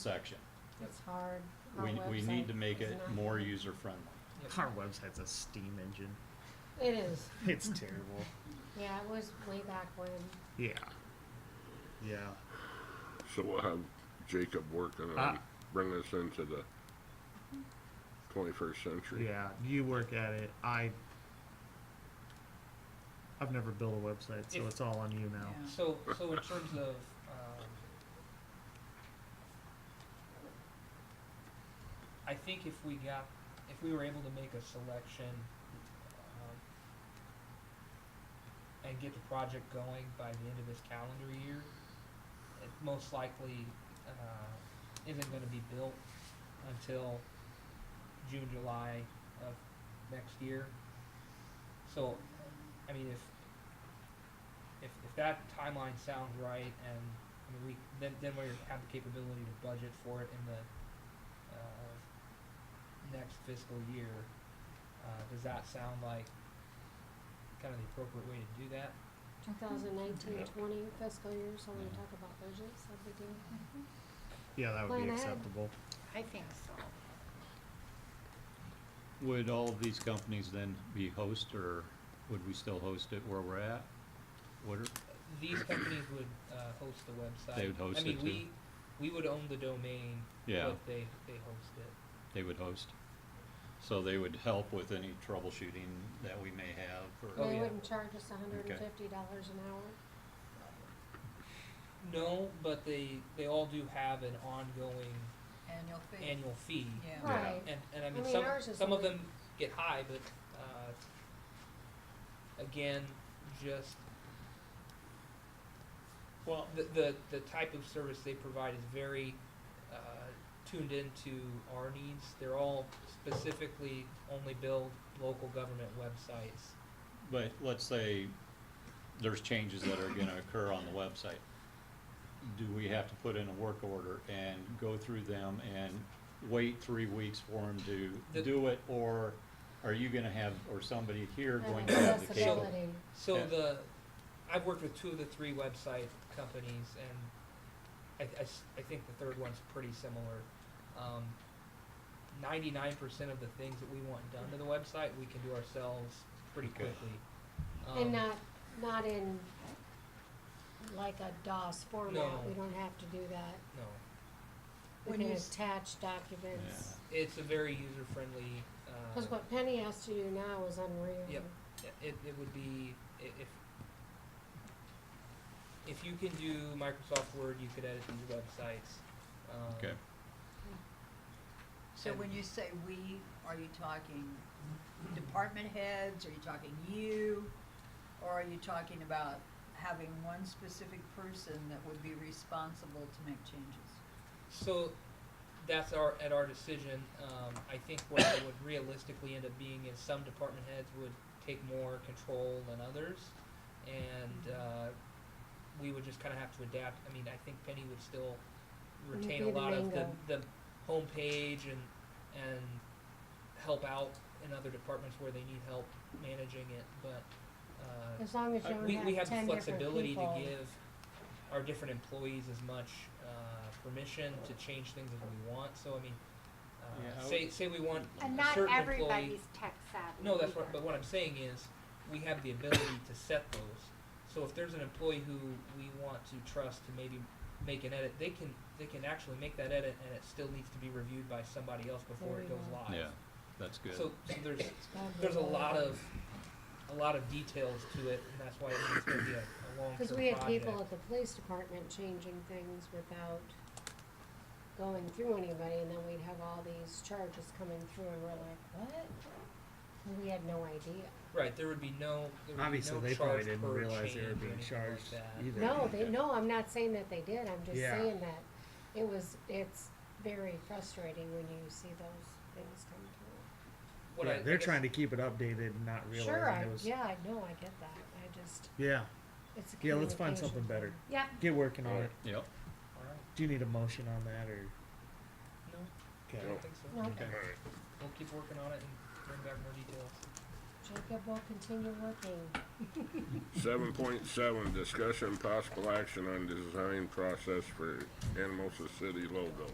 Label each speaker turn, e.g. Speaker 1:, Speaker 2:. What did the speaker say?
Speaker 1: section.
Speaker 2: It's hard. Our
Speaker 1: We, we need
Speaker 2: website
Speaker 1: to make
Speaker 2: is
Speaker 1: it
Speaker 2: not-
Speaker 1: more user-friendly.
Speaker 3: Our website's a steam engine.
Speaker 2: It is,
Speaker 3: It's terrible.
Speaker 2: yeah, it was way back when,
Speaker 3: Yeah. Yeah.
Speaker 4: So we'll have Jacob working on
Speaker 3: Ah.
Speaker 4: bringing us into the twenty-first century.
Speaker 3: Yeah. You work at it. I. I've never built a website, so
Speaker 5: If-
Speaker 3: it's all on you now.
Speaker 5: So, so in terms of, um, I think if we got, if we were able to make a selection, um, and get the project going by the end of this calendar year, it most likely, uh, isn't gonna be built until June, July of next year. So, I mean, if, if, if that timeline sounds right and, I mean, we, then, then we have the capability to budget for it in the, uh, next fiscal year, uh, does that sound like kind of the appropriate way to do that?
Speaker 2: 2019,
Speaker 3: Yeah.
Speaker 2: 20 fiscal year, so when we
Speaker 1: Yeah.
Speaker 2: talk about budgets, that'd be good.
Speaker 3: Yeah, that
Speaker 2: Plan
Speaker 3: would be
Speaker 2: ahead.
Speaker 3: acceptable.
Speaker 6: I think so.
Speaker 1: Would all of these companies then be host, or would we still host it where we're at? What are,
Speaker 5: These companies would, uh, host the website.
Speaker 1: They would host
Speaker 5: I mean,
Speaker 1: it too.
Speaker 5: we, we would own the domain,
Speaker 1: yeah,
Speaker 5: but they, they host it.
Speaker 1: they would host. So they would help with any troubleshooting that we may have,
Speaker 5: Oh,
Speaker 1: or,
Speaker 2: They
Speaker 5: yeah.
Speaker 2: wouldn't charge us $150 an hour.
Speaker 5: No, but they, they all do have an ongoing
Speaker 6: Annual fee.
Speaker 5: annual fee.
Speaker 6: Yeah.
Speaker 1: Yeah.
Speaker 2: Right,
Speaker 5: And, and I
Speaker 2: I
Speaker 5: mean,
Speaker 2: mean,
Speaker 5: some,
Speaker 2: ours is
Speaker 5: some of
Speaker 2: only-
Speaker 5: them get high, but, uh, again, just
Speaker 1: well,
Speaker 5: the, the, the type of service they provide is very, uh, tuned into our needs. They're all specifically only build local government websites.
Speaker 1: but let's say there's changes that are gonna occur on the website. Do we have to put in a work order and go through them and wait three weeks for them to
Speaker 5: The-
Speaker 1: do it, or are you gonna have, or somebody here
Speaker 2: and
Speaker 1: going to have the cable?
Speaker 2: accessibility.
Speaker 5: So
Speaker 1: Yeah.
Speaker 5: the, I've worked with two of the three website companies, and I, I s- I think the third one's pretty similar. Um, Ninety-nine percent of the things that we want done to the website, we can do ourselves pretty
Speaker 1: Okay.
Speaker 5: quickly. Um,
Speaker 2: And uh, not, not in like a DOS
Speaker 5: No.
Speaker 2: format, we don't have to do that.
Speaker 5: No,
Speaker 2: We
Speaker 6: When
Speaker 2: can
Speaker 6: you s-
Speaker 2: attach documents.
Speaker 5: it's a very user-friendly, uh.
Speaker 2: Cause what Penny has to do now is unreal.
Speaker 5: Yep. it, it would be, i- if, if you can do Microsoft Word, you could edit these websites. Um,
Speaker 1: Okay.
Speaker 6: So when you say we, are you talking department heads, are you talking you? Or are you talking about having one specific person that would be responsible to make changes?
Speaker 5: So, that's our, at our decision, um, I think what it would realistically end up being is some department heads would take more control than others. And, uh, we would just kinda have to adapt, I mean, I think Penny would still
Speaker 2: You'd
Speaker 5: retain
Speaker 2: be
Speaker 5: a
Speaker 2: the
Speaker 5: lot of
Speaker 2: main
Speaker 5: the,
Speaker 2: guy.
Speaker 5: the homepage and, and help out in other departments where they need help managing it, but, uh,
Speaker 2: As long as
Speaker 5: uh,
Speaker 2: you
Speaker 5: we,
Speaker 2: don't
Speaker 5: we
Speaker 2: have
Speaker 5: have the
Speaker 2: ten different
Speaker 5: flexibility to
Speaker 2: people.
Speaker 5: give our different employees as much, uh, permission to change things as we want, so I mean,
Speaker 1: Yeah, I
Speaker 5: uh, say,
Speaker 1: would-
Speaker 5: say we want
Speaker 7: And
Speaker 5: a
Speaker 7: not
Speaker 5: certain employee.
Speaker 7: everybody's tech savvy.
Speaker 5: No, that's
Speaker 7: either.
Speaker 5: what, but what I'm saying is, we have the ability to set those, so if there's an employee who we want to trust to maybe make an edit, they can, they can actually make that edit and it still needs to be reviewed by somebody else before
Speaker 2: There
Speaker 5: it
Speaker 2: you
Speaker 5: goes
Speaker 2: go.
Speaker 5: live.
Speaker 1: Yeah, that's good.
Speaker 5: So, so there's,
Speaker 2: That'd be
Speaker 5: there's a
Speaker 2: really
Speaker 5: lot
Speaker 2: good.
Speaker 5: of, a lot of details to it, and that's why it needs to be a, a long-term project.
Speaker 2: Cause we had people at the police department changing things without going through anybody, and then we'd have all these charges coming through, and we're like, what? And we had no idea.
Speaker 5: Right, there would be no, there would be no charge per change or anything like that.
Speaker 3: Obviously, they probably didn't realize they were being charged either.
Speaker 2: No, they, no, I'm not saying that they did, I'm just
Speaker 3: Yeah.
Speaker 2: saying that it was, it's very frustrating when you see those things come through.
Speaker 5: What
Speaker 3: yeah,
Speaker 5: I- I
Speaker 3: they're
Speaker 5: guess-
Speaker 3: trying to keep it updated and not realizing
Speaker 2: Sure, I,
Speaker 3: it was.
Speaker 2: yeah, I know, I get that, I just,
Speaker 3: yeah.
Speaker 2: it's a
Speaker 3: Yeah, let's find something
Speaker 2: communication
Speaker 3: better.
Speaker 2: thing.
Speaker 7: Yep,
Speaker 3: Get working on it.
Speaker 1: Yep,
Speaker 5: Alright,
Speaker 3: Do you need a motion on that or?
Speaker 5: no, I
Speaker 3: Okay.
Speaker 5: don't think so.
Speaker 2: No.
Speaker 1: okay.
Speaker 5: We'll keep working on it and bring back more details.
Speaker 2: Jacob will continue working.
Speaker 4: Seven point seven, discussion possible action on design process for Animal City logo.